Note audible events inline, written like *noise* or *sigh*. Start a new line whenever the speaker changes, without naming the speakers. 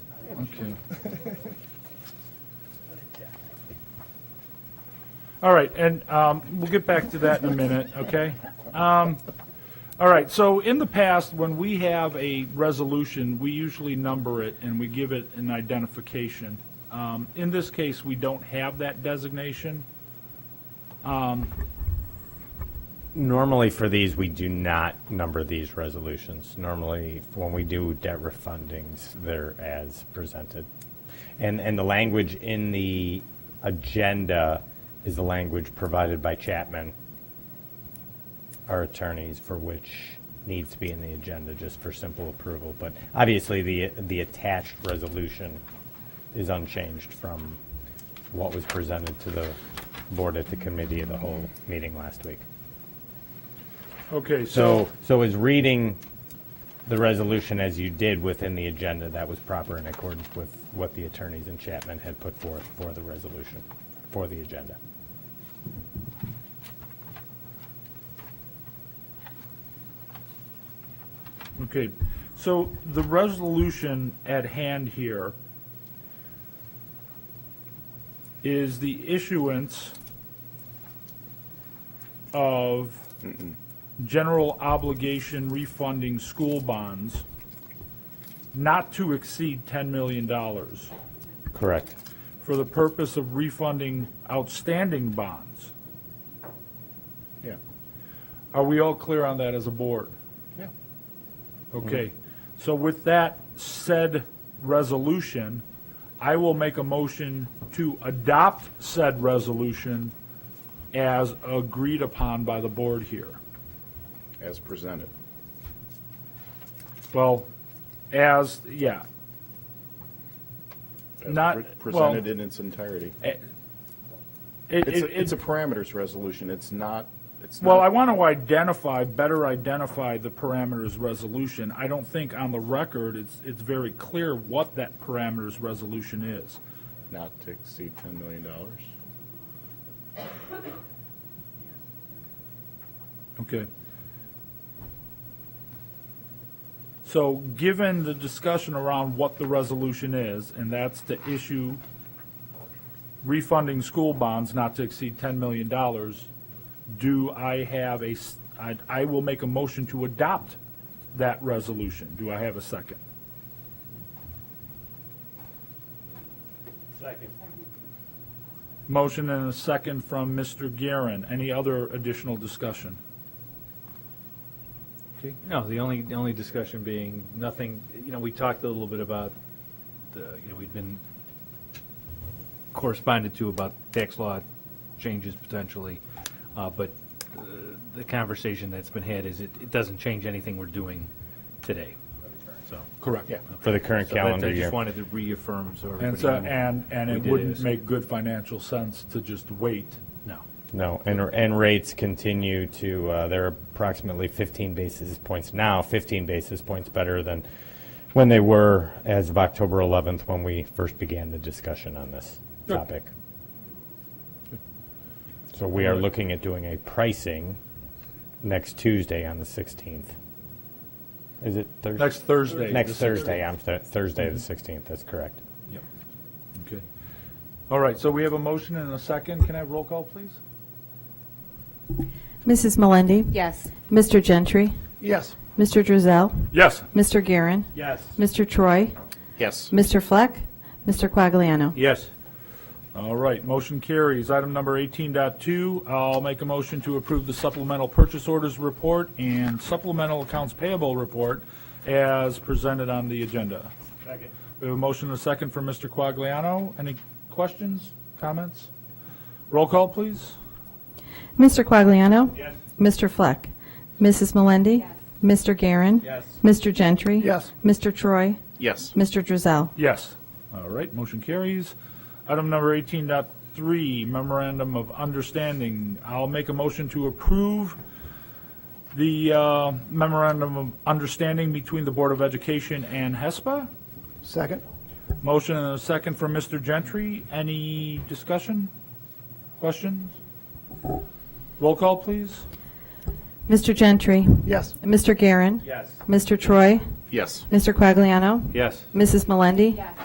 *laughs*
Okay.
All right, and um, we'll get back to that in a minute, okay? Um, All right, so in the past, when we have a resolution, we usually number it and we give it an identification. Um, In this case, we don't have that designation.
Normally for these, we do not number these resolutions. Normally, when we do debt refundings, they're as presented. And, and the language in the agenda is the language provided by Chapman, our attorneys, for which needs to be in the agenda just for simple approval. But obviously, the, the attached resolution is unchanged from what was presented to the board at the committee of the whole meeting last week.
Okay, so,
So, so is reading the resolution as you did within the agenda, that was proper in accordance with what the attorneys in Chapman had put forth for the resolution, for the agenda?
okay, so the resolution at hand here is the issuance of general obligation refunding school bonds not to exceed $10 million
Correct.
for the purpose of refunding outstanding bonds.
Yeah.
Are we all clear on that as a board?
Yeah.
Okay, so with that said resolution, I will make a motion to adopt said resolution as agreed upon by the board here.
As presented.
Well, as, yeah,
As
Not-
pre-
well-
Presented in its entirety.
it,
It's,
it,
a-
it's,
it's a parameters resolution. It's not, it's
well, I want
not,
to identify, better identify the parameters resolution. I don't think on the record, it's, it's very clear what that parameters resolution is.
not to exceed $10 million.
Okay. So, given the discussion around what the resolution is, and that's to issue refunding school bonds not to exceed $10 million, do I have a, s- I I will make a motion to adopt that resolution. Do I have a second?
Second.
Motion and a second from Mr. Guerin. Any other additional discussion?
No, the only, the only discussion being, nothing, you know, we talked a little bit about, the you know, we'd been corresponded to about tax law changes potentially, uh, but uh, the conversation that's been had is it, it doesn't change anything we're doing today, so.
Correct.
Yeah.
For the current
So that-
calendar
I
year.
just wanted to reaffirm so everybody.
And so,
knew
and, and
we
it
did
wouldn't
this.
make good financial sense to just wait.
No.
No, and, and rates continue to, uh, they're approximately 15 basis points now, 15 basis points better than when they were as of October 11th, when we first began the discussion on this
Good.
topic. So we are looking at doing a pricing next Tuesday on the 16th. Is it Thursday?
Next Thursday.
Next
the
Thursday, I'm, th- Thursday, the 16th, that's correct.
16th. Okay. All right, so we have a motion and a second. Can I have roll call, please?
Mrs. Melendi?
Yes.
Mr. Gentry?
Yes.
Mr. Drizel?
Yes.
Mr. Guerin?
Yes.
Mr. Troy?
Yes.
Mr. Fleck? Mr. Quagliano?
Yes. All right, motion carries. Item number 18.2, I'll make a motion to approve the supplemental purchase orders report and supplemental accounts payable report as presented on the agenda. Second. We have a motion and a second from Mr. Quagliano. Any questions, comments? Roll call, please.
Mr. Quagliano? Yes. Mr. Fleck? Mrs. Melendi? Mr. Guerin? Yes. Mr. Gentry?
Yes.
Mr. Troy?
Yes.
Mr. Drizel?
Yes. All right, motion carries. Item number 18.3, memorandum of understanding. I'll make a motion to approve the uh, memorandum of understanding between the Board of Education and HESPA.
Second?
Motion and a second from Mr. Gentry. Any discussion? Questions? Roll call, please.
Mr. Gentry?
Yes.
Mr. Guerin?
Yes.
Mr. Troy?
Yes.
Mr. Quagliano?
Yes.
Mrs. Melendi?